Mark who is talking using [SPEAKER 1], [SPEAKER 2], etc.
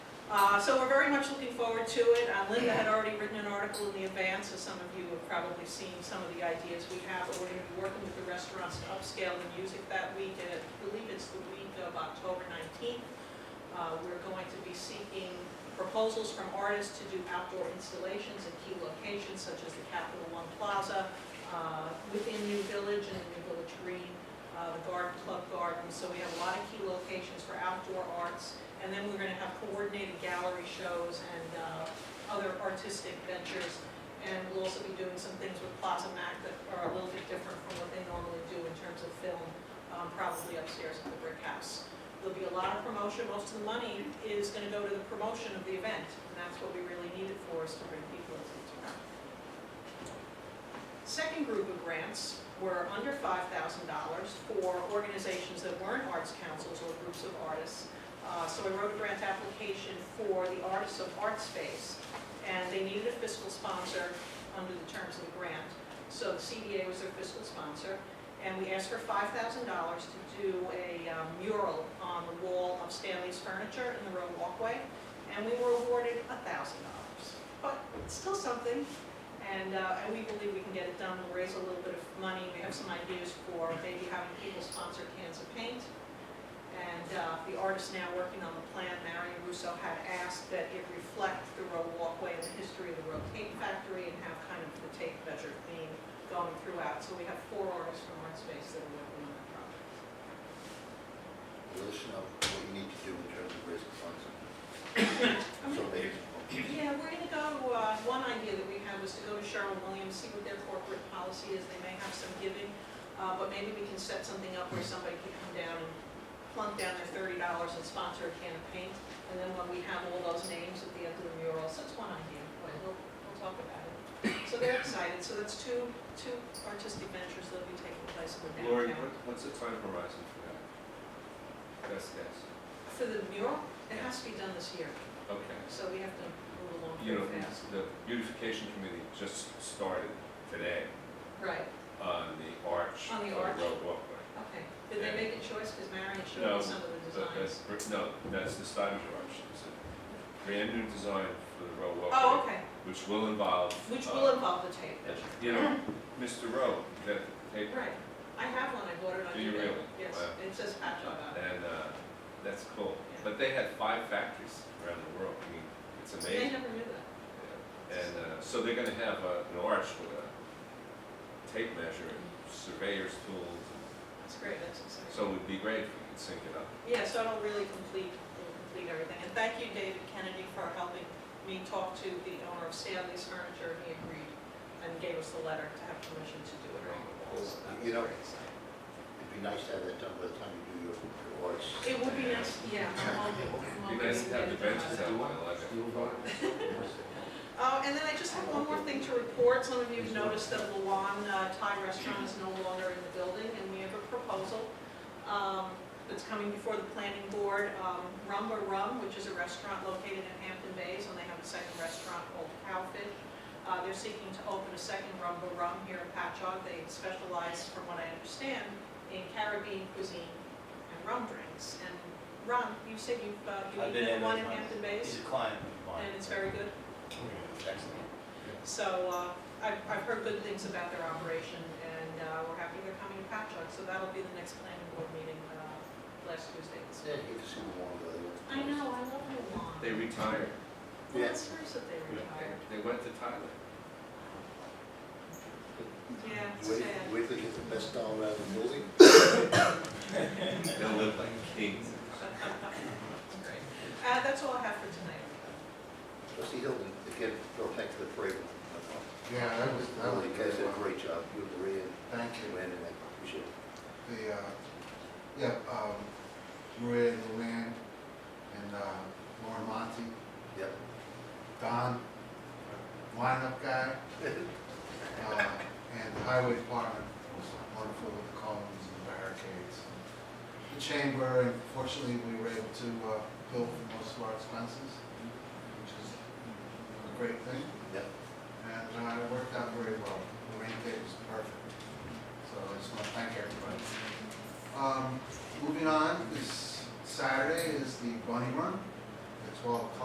[SPEAKER 1] Uh, So we're very much looking forward to it. Uh, Linda had already written an article in the advance, so some of you have probably seen some of the ideas we have. But We're going to be working with the restaurants to upscale the music that week, and I believe it's the week of October 19th. Uh, We're going to be seeking proposals from artists to do outdoor installations in key locations such as the Capital One Plaza, uh, within New Village and New Village Green, uh, the Garden Club Garden. So we have a lot of key locations for outdoor arts. And then we're going to have coordinated gallery shows and uh, other artistic ventures. And we'll also be doing some things with Plaza Mac that are a little bit different from what they normally do in terms of film, um, probably upstairs at the Brick House. There'll be a lot of promotion. Most of the money is going to go to the promotion of the event. And that's what we really need it for, is to bring people into town. Second group of grants were under $5,000 for organizations that weren't arts councils or groups of artists. Uh, So I wrote a grant application for the Artists of Art Space, and they needed a fiscal sponsor under the terms of the grant. So the CDA was their fiscal sponsor, and we asked for $5,000 to do a um, mural on the wall of Stanley's Furniture in the road walkway, and we were awarded $1,000. But it's still something, and uh, and we believe we can get it done, we'll raise a little bit of money, we have some ideas for maybe having people sponsor cans of paint, and uh, the artist now working on the plan, Marion Russo, had asked that it reflect the road walkway and the history of the road tape factory and have kind of the tape measure theme going throughout. So we have four artists from Art Space that are working on that project.
[SPEAKER 2] Let us know what you need to do in terms of raising funds. So they,
[SPEAKER 1] Yeah, we're gonna go, uh, one idea that we had was to go to Sherwin Williams, see what their corporate policy is, they may have some giving, uh, but maybe we can set something up where somebody could come down and plunk down their thirty dollars and sponsor a can of paint, and then when we have all those names at the end of the mural, so that's one idea, but we'll, we'll talk about it. So they're excited, so that's two, two artistic ventures that'll be taking place in the
[SPEAKER 3] Lori,
[SPEAKER 1] downtown.
[SPEAKER 3] what- what's the time horizon for that? Best guess.
[SPEAKER 1] For the mural, it has to be done this year,
[SPEAKER 3] Okay.
[SPEAKER 1] so we have to move along
[SPEAKER 3] You know,
[SPEAKER 1] pretty fast.
[SPEAKER 3] the beautification committee just started today
[SPEAKER 1] Right,
[SPEAKER 3] on the arch.
[SPEAKER 1] On the
[SPEAKER 3] of
[SPEAKER 1] arch.
[SPEAKER 3] Road walkway.
[SPEAKER 1] Okay, did they make a choice, because Marion showed
[SPEAKER 3] No,
[SPEAKER 1] me some of the
[SPEAKER 3] But
[SPEAKER 1] designs?
[SPEAKER 3] that's, no, that's the Stuyvesant arch. It's a brand new design for the road walkway.
[SPEAKER 1] Oh, okay,
[SPEAKER 3] Which will involve.
[SPEAKER 1] which
[SPEAKER 3] uh,
[SPEAKER 1] will involve the tape measure.
[SPEAKER 3] You know, Mr. Rowe, that paper.
[SPEAKER 1] Right, I have one, I bought it on eBay.
[SPEAKER 3] Do you really?
[SPEAKER 1] Yes,
[SPEAKER 3] Wow.
[SPEAKER 1] it says patch on it.
[SPEAKER 3] And uh, that's cool.
[SPEAKER 1] Yeah.
[SPEAKER 3] But they had five factories around the world. I mean, it's
[SPEAKER 1] They
[SPEAKER 3] amazing.
[SPEAKER 1] never knew that.
[SPEAKER 3] And uh, so they're gonna have uh, an arch with a tape measure, and surveyor's tools.
[SPEAKER 1] That's great, that's exciting.
[SPEAKER 3] So it would be great if we could sync it up.
[SPEAKER 1] Yeah, so it'll really complete, it'll complete everything. And thank you, David Kennedy, for helping me talk to the owner of Stanley's Furniture. He agreed and gave us the letter to have permission to do it around the walls. So that was
[SPEAKER 2] You know-
[SPEAKER 1] very exciting.
[SPEAKER 2] it'd be nice to have that done by the time you do your, your arts.
[SPEAKER 1] It would be nice, yeah, I'm hoping, I'm
[SPEAKER 3] It'd be
[SPEAKER 1] hoping
[SPEAKER 3] nice
[SPEAKER 1] we
[SPEAKER 3] to have
[SPEAKER 1] can get it
[SPEAKER 3] the
[SPEAKER 1] done.
[SPEAKER 3] benches out by eleven.
[SPEAKER 1] Uh, and then I just have one more thing to report. Some of you have noticed that Luan uh, Thai Restaurant is no longer in the building, and we have a proposal um, that's coming before the planning board. Um, Rum or Rum, which is a restaurant located in Hampton Bays, and they have a second restaurant called Cowfish. Uh, They're seeking to open a second Rum or Rum here in Patchogue. They specialize, from what I understand, in Caribbean cuisine and rum drinks. And Ron, you said you've,
[SPEAKER 4] I've
[SPEAKER 1] uh, you've
[SPEAKER 4] been in
[SPEAKER 1] eaten one in
[SPEAKER 4] those ones.
[SPEAKER 1] Hampton
[SPEAKER 4] He's a
[SPEAKER 1] Bays,
[SPEAKER 4] client of mine.
[SPEAKER 1] and it's very good.
[SPEAKER 4] Excellent.
[SPEAKER 1] So uh, I've I've heard good things about their operation, and uh, we're happy they're coming to Patchogue. So that'll be the next planning board meeting uh, last Tuesday.
[SPEAKER 2] Yeah, you can see the one go there.
[SPEAKER 1] I know, I love Luan.
[SPEAKER 3] They retired.
[SPEAKER 1] Well, that's nice that they retired.
[SPEAKER 3] They they went to Thailand.
[SPEAKER 1] Yeah, it's
[SPEAKER 2] Wait,
[SPEAKER 1] sad.
[SPEAKER 2] wait till you get the best dollar out of the building.
[SPEAKER 3] They'll live like kings.
[SPEAKER 1] It's great. Uh, That's all I have for tonight.
[SPEAKER 2] Trustee Hilton, again, Bill, thanks for the parade.
[SPEAKER 5] Yeah, that was, that was
[SPEAKER 2] You
[SPEAKER 5] good.
[SPEAKER 2] guys did a great job. You and Maria and
[SPEAKER 5] Thank you.
[SPEAKER 2] Joanne, and I appreciate it.
[SPEAKER 5] The, uh, yeah, um, Maria and Luann and, uh, Lauren Monty,
[SPEAKER 2] Yeah.
[SPEAKER 5] Don, wind-up guy, uh, and the highway department was wonderful with the columns and barricades. The chamber, and fortunately, we were able to, uh, bill for most of our expenses, which is a great thing.
[SPEAKER 2] Yeah.
[SPEAKER 5] And uh, it worked out very well. The rain date was perfect. So I just want to thank everybody. Um, Moving on, this Saturday is the Bunny Run at 12 o'clock.